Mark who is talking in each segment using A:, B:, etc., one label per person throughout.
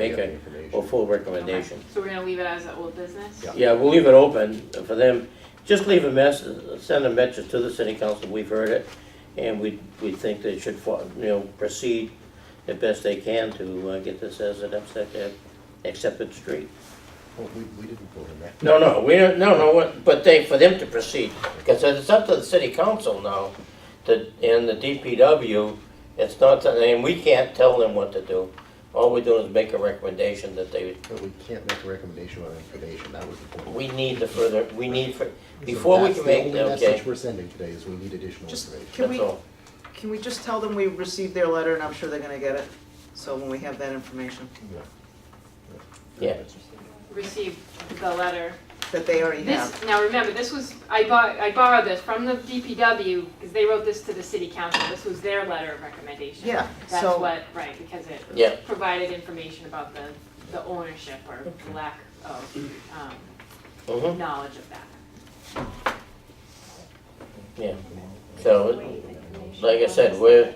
A: make
B: Yeah,
A: a,
B: information.
A: a full
C: Okay.
A: recommendation.
C: So we're gonna leave it as an old business?
B: Yeah.
A: Yeah, we'll leave it open for them, just leave a mess, send a message to the city council, we've heard it, and we, we think they should, fo- you know, proceed the best they can to uh, get this as an accepted, accepted street.
B: Well, we, we didn't vote on that.
A: No, no, we don't, no, no, what- but they, for them to proceed, because it's up to the city council now, to, and the DPW, it's not, and we can't tell them what to do. All we're doing is make a recommendation that they,
B: But we can't make a recommendation on information, that was the point.
A: we need the further, we need, for
B: So
A: before we
B: that's
A: can
B: the
A: make,
B: only
A: okay,
B: message we're sending today is we need additional
D: Just-
B: information.
D: Can
A: that's
D: we-
A: all.
D: Can we just tell them we received their letter and I'm sure they're gonna get it? So when we have that information,
B: Yeah.
A: Yeah.
C: Received the letter.
D: that they already have.
C: This, now remember, this was, I bought, I borrowed this from the DPW, because they wrote this to the city council, this was their letter of recommendation.
D: Yeah,
C: That's
D: so-
C: what, right, because
A: Yeah.
C: it provided information about the, the ownership or lack of, um,
A: Mhm.
C: knowledge of that.
A: Yeah, so, like I said, we're,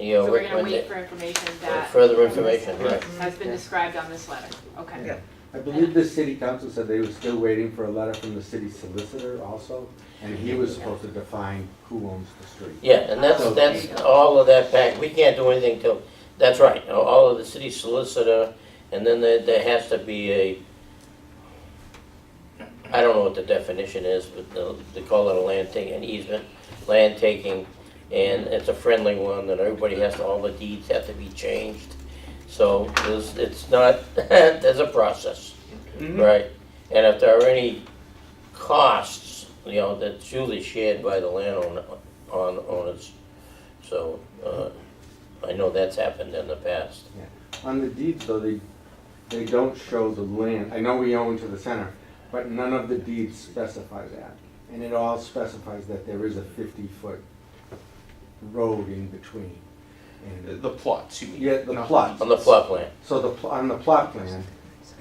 A: you know,
C: So we're gonna wait
A: recommend
C: for information
A: uh,
C: that
A: further information, right?
C: has been described on this letter, okay?
D: Yeah.
E: I believe the city council said they were still waiting for a letter from the city solicitor also, and he was supposed to define who owns the street.
A: Yeah, and that's,
E: So-
A: that's all of that pack, we can't do anything till, that's right, all of the city solicitor, and then there, there has to be a, I don't know what the definition is, but the- they call it a land taking, an easement, land taking, and it's a friendly one, that everybody has to, all the deeds have to be changed. So, there's, it's not, there's a process,
D: Mm-hmm.
A: right? And if there are any costs, you know, that's usually shared by the landowner, on owners. So, uh, I know that's happened in the past.
E: On the deeds though, they, they don't show the land, I know we own to the center, but none of the deeds specify that. And it all specifies that there is a fifty-foot road in between. And,
F: The plots, you mean?
E: Yeah, the
F: not
E: plots.
A: On the plot plan,
E: so the, pl- on the plot plan,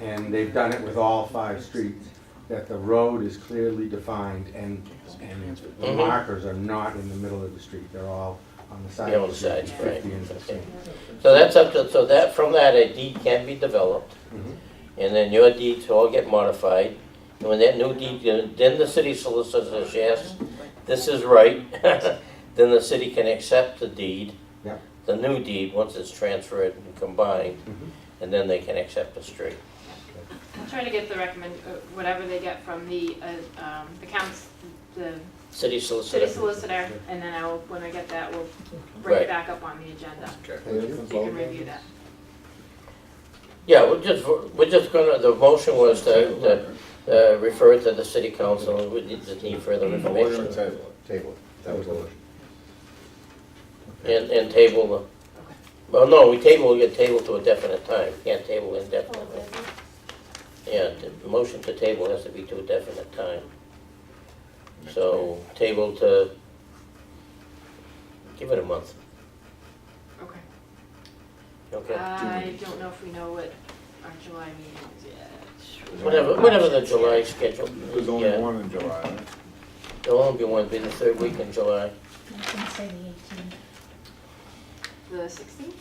E: and they've done it with all five streets, that the road is clearly defined and, and the
A: Mhm.
E: markers are not in the middle of the street, they're all on the side
A: Yeah, on
E: of
A: the
E: the street,
A: sides, right,
E: fifty and
A: okay.
E: sixteen.
A: so that's up to, so that, from that, a deed can be developed,
E: Mhm.
A: and then your deeds all get modified. And when that new deed, then the city solicitor says, yes, this is right, then the city can accept the deed.
E: Yeah.
A: The new deed, once it's transferred and combined,
E: Mhm.
A: and then they can accept the street.
C: I'm trying to get the recommend, uh, whatever they get from the, uh, um, the counts, the
A: City solicitor.
C: city solicitor, and then I will, when I get that, we'll bring
A: Right.
C: it back up on the agenda.
B: Thank you.
C: So you can review that.
A: Yeah, we're just, we're just gonna, the motion was to, to uh, refer it to the city council, we need to need
G: Mm,
A: further information,
B: Table, it. that was the motion.
A: and, and table the, well, no, we table, we get table to a definite time, can't table indefinitely. Yeah, the motion to table has to be to a definite time. So, table to, give it a month,
C: Okay.
A: okay?
C: I don't know if we know what our July meeting is yet.
A: Whatever, whatever the July schedule,
G: There's only
A: yeah,
G: one in July, right?
A: there'll only be one, be the third week in July.
H: I can say the eighteenth.
C: The sixteenth?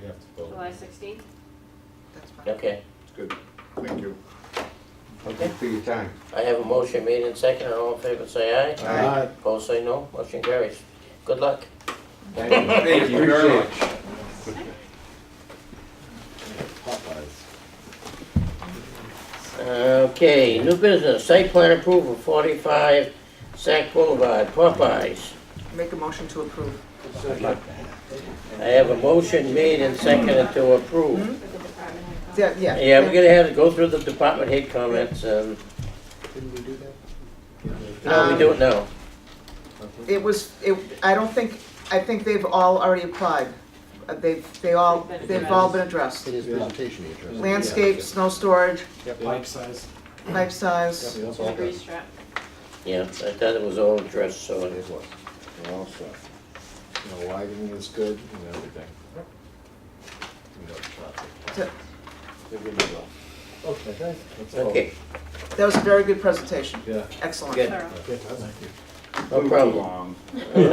B: We have to vote.
C: July sixteenth?
D: That's fine.
A: Okay,
G: It's good. Thank you.
E: Thank you for your time.
A: I have a motion made and second, and all in favor say aye.
B: Aye.
A: Opposed, say no. Motion carries. Good luck.
E: Thank you very much.
B: Popeyes.
A: Okay, new business, site plan approval, 45 Sac Boulevard, Popeyes.
D: Make a motion to approve.
A: I have a motion made and seconded to approve.
C: With the department head. comment.
D: Yeah, yeah.
A: Yeah, we're gonna have to go through the department head comments, and,
B: Didn't we do that? Um,
A: no, Um, we do it now.
D: It was, it, I don't think, I think they've all already applied. Uh, They've, they all, they've all been addressed.
B: In his presentation, he addressed. it.
D: Landscape, snow storage,
I: Pipe size.
D: pipe size.
B: Yeah, that's all
C: The
B: done.
C: grease trap.
A: Yeah, I thought it was all addressed, so
B: It
A: it-
B: was.
G: We're all set. The lighting is good and everything.
B: We got the traffic.
G: They're good to go.
I: Okay, guys.
A: okay.
D: That was a very good presentation.
G: Yeah.
D: Excellent.
A: Good.
C: Thorough.
B: Okay, thank you.
J: No
A: We were
J: problem.
E: Um,
A: wrong.